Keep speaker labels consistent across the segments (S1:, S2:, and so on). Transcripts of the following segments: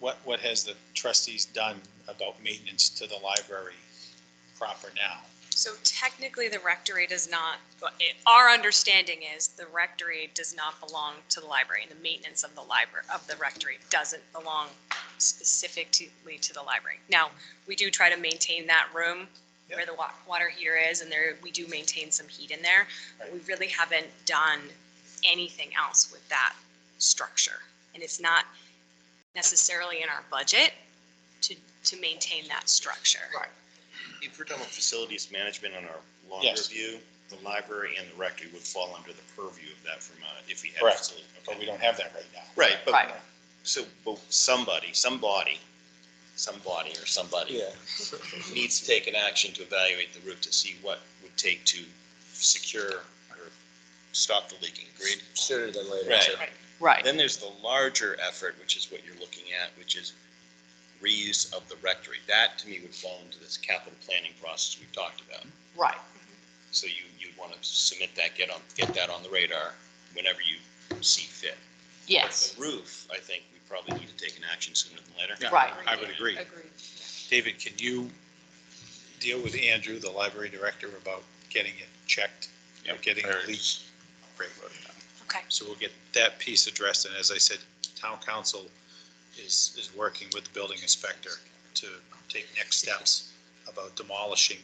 S1: what, what has the trustees done about maintenance to the library proper now?
S2: So technically, the rectory does not, well, it- our understanding is the rectory does not belong to the library. and The maintenance of the library, of the rectory doesn't belong specifically to the library. Now, we do try to maintain that room where the wa- water heater is and there, we do maintain some heat in there. But we really haven't done anything else with that structure. And it's not necessarily in our budget to, to maintain that structure.
S3: Right.
S4: If we're talking about facilities management on our longer
S1: Yes.
S4: view, the library and the rectory would fall under the purview of that from, uh, if we had.
S1: Correct.
S4: facility-
S1: But
S4: okay.
S1: we don't have that right now.
S4: Right,
S3: Right.
S4: but, so, but somebody, somebody, somebody or somebody needs to take an action to evaluate the roof to see what would take to secure or stop the leaking, agreed?
S5: Sooner than later.
S4: Right.
S5: sure.
S3: Right,
S4: Then there's the larger effort, which is what you're looking at, which is reuse of the rectory. That, to me, would fall into this capital planning process we've talked about.
S3: right.
S4: So you, you'd want to submit that, get on, get that on the radar whenever you see fit.
S3: Yes,
S4: The roof, I think we probably need to take an action sooner than later.
S1: Yeah.
S3: right.
S1: I would agree.
S2: Agreed.
S1: David, can you deal with Andrew, the library director, about getting it checked? or Getting a leak? Great, well done.
S2: Okay.
S1: So we'll get that piece addressed, and as I said, town council is, is working with the building inspector to take next steps about demolishing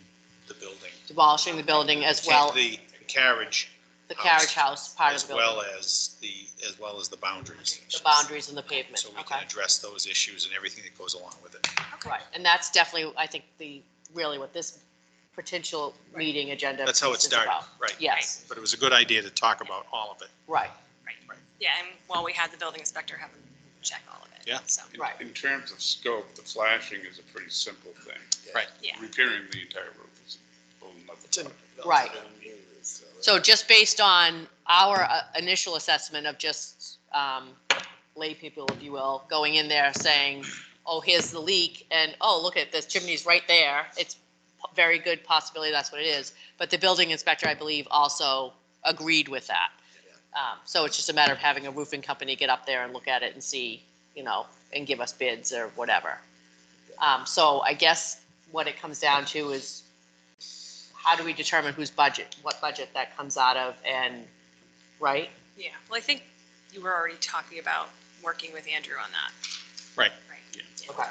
S1: the building.
S3: Demolishing the building as well,
S1: The carriage,
S3: the carriage house part of
S1: as
S3: the building,
S1: well as the, as well as the boundaries.
S3: the boundaries and the pavement,
S1: So we
S3: okay?
S1: can address those issues and everything that goes along with it.
S3: Right, and that's definitely, I think, the, really what this potential meeting agenda
S1: That's how it
S3: piece is
S1: started,
S3: about.
S1: right?
S3: Yes,
S1: But it was a good idea to talk about all of it.
S3: right,
S2: Yeah, and while we had the building inspector have them check all of it.
S1: Yeah.
S2: So,
S3: right,
S6: In terms of scope, the flashing is a pretty simple thing.
S2: yeah,
S6: Repairing the entire roof is a whole nother
S5: It's in-
S6: project.
S3: Right.
S5: So-
S3: So just based on our uh, initial assessment of just um, lay people, if you will, going in there saying, oh, here's the leak, and oh, look at this chimney's right there. It's a very good possibility that's what it is. But the building inspector, I believe, also agreed with that. Um, So it's just a matter of having a roofing company get up there and look at it and see, you know, and give us bids or whatever. Um, So I guess what it comes down to is how do we determine whose budget, what budget that comes out of and, right?
S2: yeah. Well, I think you were already talking about working with Andrew on that.
S1: Right.
S2: Right.
S1: Yeah.
S3: Okay.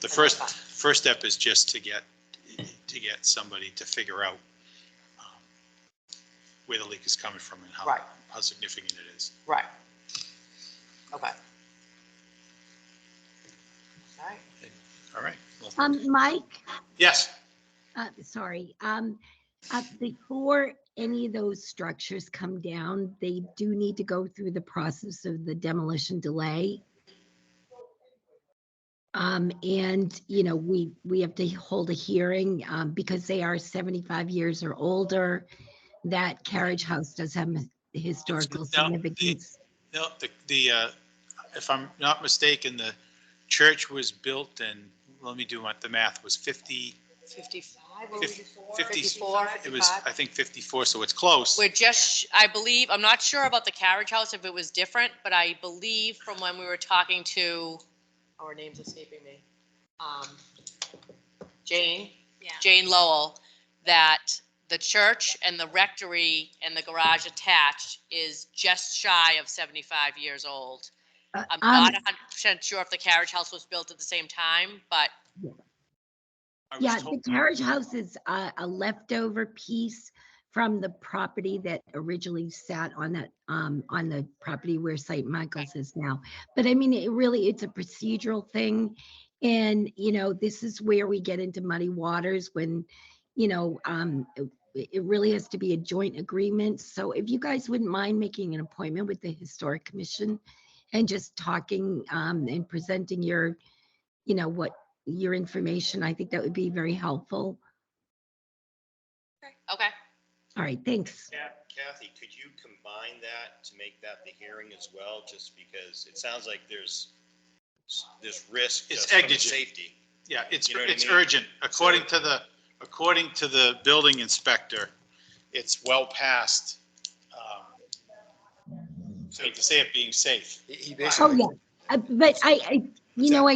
S1: The first, first step is just to get, to get somebody to figure out um, where the leak is coming from and how,
S3: Right.
S1: how significant it is.
S3: Right. Okay. All right.
S1: All right. well-
S7: Um, Mike,
S1: Yes,
S7: uh, sorry, um, uh, before any of those structures come down, they do need to go through the process of the demolition delay. Um, and, you know, we, we have to hold a hearing, um, because they are seventy-five years or older. That carriage house does have his- historical
S1: down, the-
S7: significance.
S1: no, the, the, uh, if I'm not mistaken, the church was built in, let me do my, the math, was 50,
S3: Fifty-five,
S1: we Fif-
S3: before?
S1: 50
S3: Fifty-four,
S1: it was, I
S3: fifty-five?
S1: think 54, so it's close.
S3: We're just, sh- I believe, I'm not sure about the carriage house, if it was different, but I believe from when we were talking to, our name's escaping me, um, Jane,
S2: Yeah.
S3: Jane Lowell, that the church and the rectory and the garage attached is just shy of 75 years old.
S7: Uh,
S3: I'm
S7: um,
S3: not 100% sure if the carriage house was built at the same time, but
S1: I was
S7: Yeah, the
S1: told-
S7: carriage house is a, a leftover piece from the property that originally sat on that, um, on the property where St. Michael's is now. But I mean, it really, it's a procedural thing. And, you know, this is where we get into muddy waters when, you know, um, it- it really has to be a joint agreement. So if you guys wouldn't mind making an appointment with the Historic Commission and just talking, um, and presenting your, you know, what your information. I think that would be very helpful.
S3: okay.
S7: All right, thanks.
S4: Kathy, could you combine that to make that the hearing as well, just because it sounds like there's, there's risk.
S1: It's
S4: just from
S1: exigent.
S4: Safety.
S1: Yeah, it's,
S4: You know what I
S1: it's
S4: mean?
S1: urgent. According to the, according to the building inspector, it's well past, um, so to say it being safe.
S5: He he
S7: Oh,
S5: basically,
S7: yeah. Uh, But I, I, You know, I